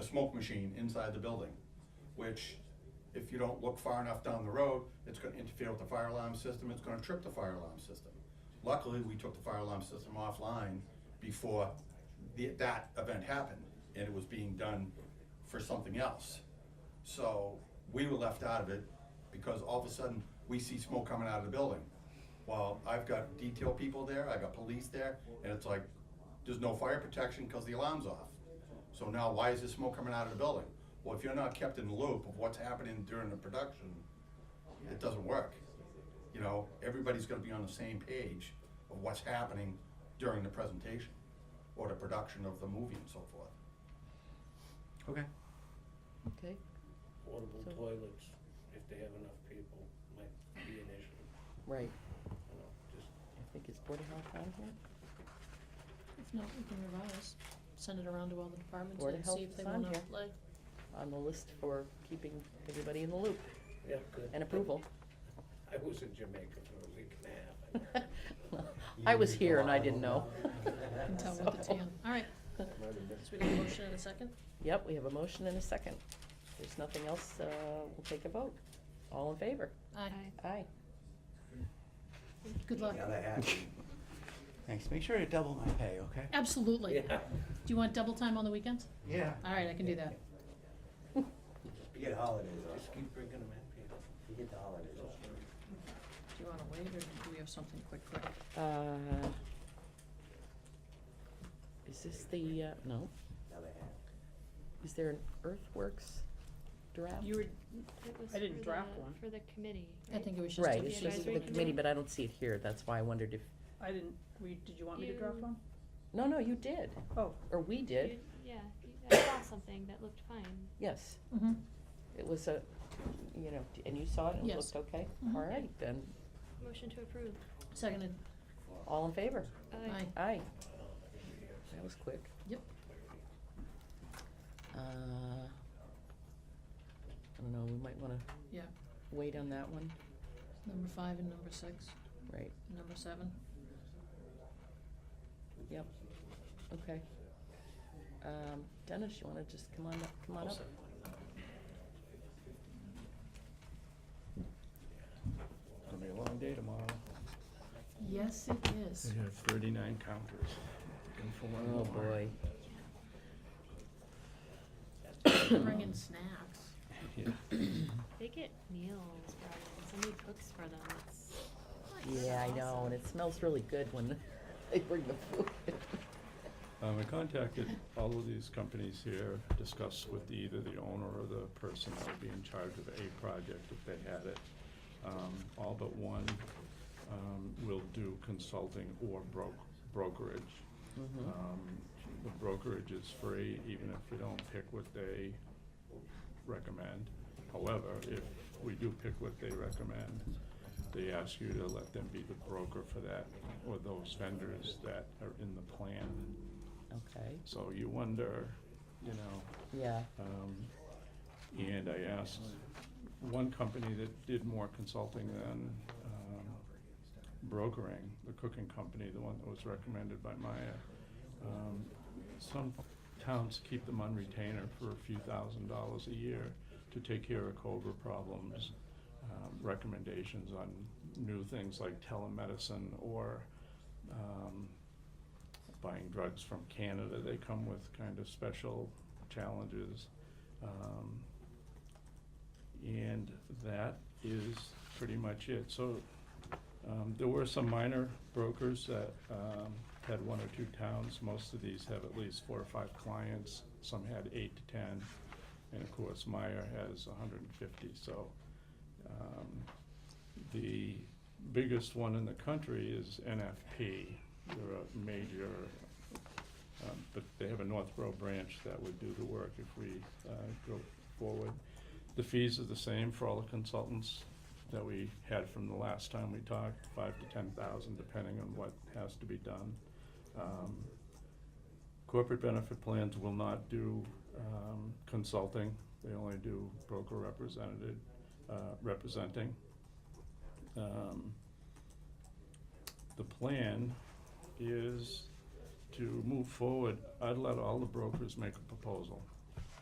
smoke machine inside the building, which if you don't look far enough down the road, it's gonna interfere with the fire alarm system, it's gonna trip the fire alarm system. Luckily, we took the fire alarm system offline before the, that event happened, and it was being done for something else. So we were left out of it because all of a sudden, we see smoke coming out of the building. Well, I've got detail people there, I've got police there, and it's like, there's no fire protection because the alarm's off. So now why is there smoke coming out of the building? Well, if you're not kept in the loop of what's happening during the production, it doesn't work. You know, everybody's gonna be on the same page of what's happening during the presentation or the production of the movie and so forth. Okay. Okay, Portable So- toilets, if they have enough people, might be an issue, right, you know, just, I think it's Board of Health on here, If not, we can revise, send it around to all the departments Board of and Health see if they is on wanna here. play. on the list for keeping everybody in the loop yeah, good. and approval. I was in Jamaica for a week and a half. I was here and I didn't know. Can tell with the So- tan. All right, so we got a motion and a second? Yep, we have a motion and a second. If there's nothing else, uh, we'll take a vote. All in favor? Aye. Aye. Good luck. Thanks. Make sure to double my pay, okay? Absolutely. Do Yeah, you want double time on the weekends? Yeah. All right, I can do that. You get holidays just off, keep bringing them in, people. you get the holidays off. Do you wanna wait or do we have something quick, quick? Uh, Is this the, uh, no, Now they have. is there an earthworks draft? You were, It was I didn't for draft the- one. For the committee. I right? think it was just. Right, to it's the just advisory the committee, committee. but I don't see it here, that's why I wondered if, I didn't, we, did you want me to draft You- one? no, no, you did, Oh, or we did, You- Yeah, you- I saw something that looked fine. yes. Mhm. It was a, you know, and you saw it and it Yes. looked okay? Mhm. All right, then, Motion to approve. Uh, Seconded. all in favor? Aye. Aye. Aye. That was quick. Yep. Uh, I don't know, we might wanna Yeah, wait on that one, number five and number six, right, and number seven. yep, okay. Um, Dennis, you wanna just come on up, come on up? It's gonna be a long day tomorrow. Yes, it is. have thirty-nine counters. Looking for one more. Oh, boy. Bringing snacks. Yeah. They get meals brought in, somebody cooks for them, it's. Yeah, I know, and it smells really good when they bring the food. Um, I contacted all of these companies here, discussed with either the owner or the person that would be in charge of a project if they had it. Um, all but one, um, will do consulting or bro- brokerage. Mhm. Um, the brokerage is free, even if we don't pick what they recommend. However, if we do pick what they recommend, they ask you to let them be the broker for that, or those vendors that are in the plan. Okay, So you wonder, you know, yeah, um, and I asked one company that did more consulting than, um, brokering, the cooking company, the one that was recommended by Maya. Um, some towns keep them on retainer for a few thousand dollars a year to take care of COBRA problems, um, recommendations on new things like telemedicine or, um, buying drugs from Canada, they come with kind of special challenges. Um, and that is pretty much it. So, um, there were some minor brokers that, um, had one or two towns. Most of these have at least four or five clients. Some had eight to ten. And of course, Meyer has hundred and fifty, so, um, the biggest one in the country is NFP. They're a major, um, but they have a Northborough branch that would do the work if we, uh, go forward. The fees are the same for all the consultants that we had from the last time we talked, five to ten thousand, depending on what has to be done. Um, corporate benefit plans will not do, um, consulting, they only do broker representative, uh, representing. Um, the plan is to move forward, I'd let all the brokers make a proposal.